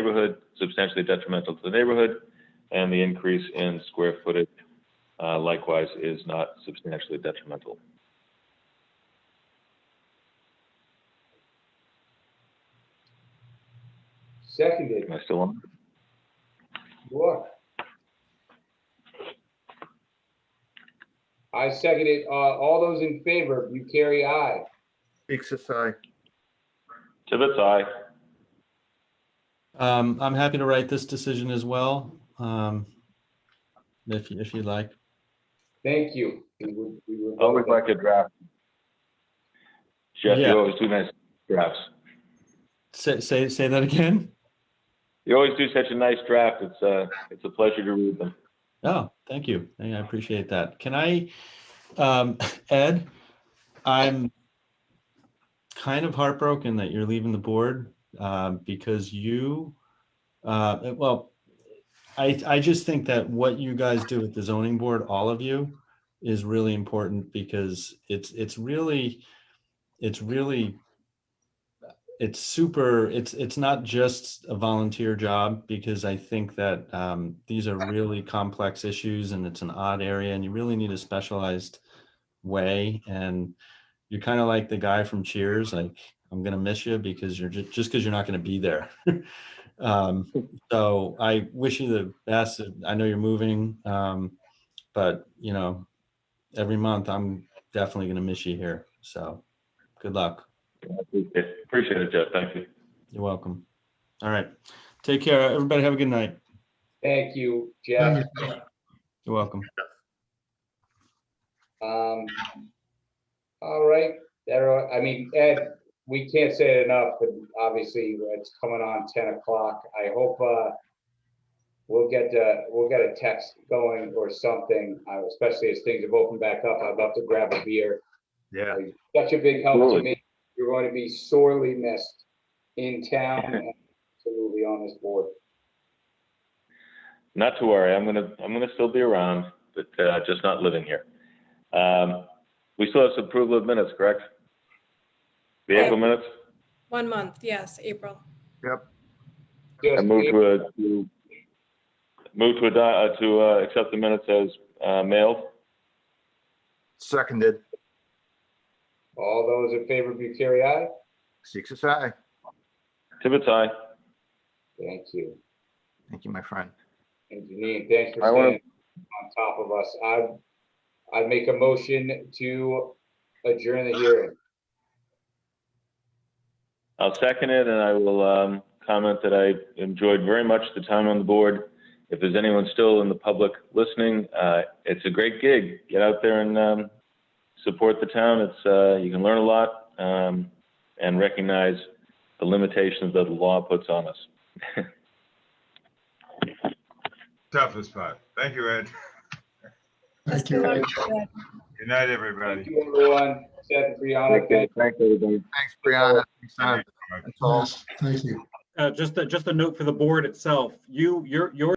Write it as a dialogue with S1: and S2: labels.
S1: neighborhood, substantially detrimental to the neighborhood, and the increase in square footage uh, likewise is not substantially detrimental.
S2: Seconded,
S1: Am I still on?
S2: you are. I seconded, uh, all those in favor, Bucieri, aye.
S3: Dixis, aye.
S1: Tibbetts, aye.
S4: Um, I'm happy to write this decision as well, um, if, if you'd like.
S2: Thank you. We would- we would-
S1: Always like a draft. Jeff,
S4: Yeah.
S1: you always do nice drafts.
S4: Say, say, say that again?
S1: You always do such a nice draft. It's uh it's a pleasure to read them.
S4: Oh, thank you. I I appreciate that. Can I, um, Ed, I'm kind of heartbroken that you're leaving the board, um, because you, uh, well, I, I just think that what you guys do at the zoning board, all of you, is really important because it's, it's really, it's really, it's super, it's, it's not just a volunteer job because I think that um, these are really complex issues and it's an odd area and you really need a specialized way. And you're kind of like the guy from Cheers, like, I'm gonna miss you because you're just, just because you're not gonna be there. Um, so I wish you the best. I know you're moving, um, but you know, every month I'm definitely gonna miss you here. So good luck.
S1: Appreciate it, Jeff. Thank you.
S4: You're welcome. All right. Take care. Everybody have a good night.
S2: Thank you, Jeff.
S4: You're welcome.
S2: Um, all right, there are, I mean, Ed, we can't say it enough, but obviously it's coming on ten o'clock. I hope, uh, we'll get, uh, we'll get a text going or something, uh, especially as things have opened back up. I'd love to grab a beer.
S3: Yeah.
S2: Such a big help to
S1: Absolutely.
S2: me. You're going to be sorely missed in town and absolutely on this board.
S1: Not to worry. I'm gonna I'm gonna still be around, but uh, just not living here. Um, we still have some approval of minutes, correct? The April minutes.
S5: One month, yes, April.
S1: I
S2: Just
S1: move to uh, to move to adi- uh, to uh, accept the minutes as uh, mailed.
S3: Seconded,
S2: All those in favor, Bucieri, aye?
S3: Dixis, aye.
S1: Tibbetts, aye.
S2: Thank you.
S3: Thank you, my friend.
S2: And Janine, thanks for
S1: I wanna-
S2: staying on top of us. I, I'd make a motion to adjourn the hearing.
S1: I'll second it, and I will um, comment that I enjoyed very much the time on the board. If there's anyone still in the public listening, uh, it's a great gig. Get out there and um, support the town. It's uh, you can learn a lot um, and recognize the limitations that the law puts on us.
S6: toughest part. Thank you, Ed.
S5: Let's do one. Yeah.
S6: Good night, everybody.
S2: Thank you, everyone. Seth, and Brianna, thank
S3: Thanks, Brianna. Thanks, Adam. That's all.
S7: Yes, Thank you.
S8: Uh, just, a- just a note for the board itself. You, your, your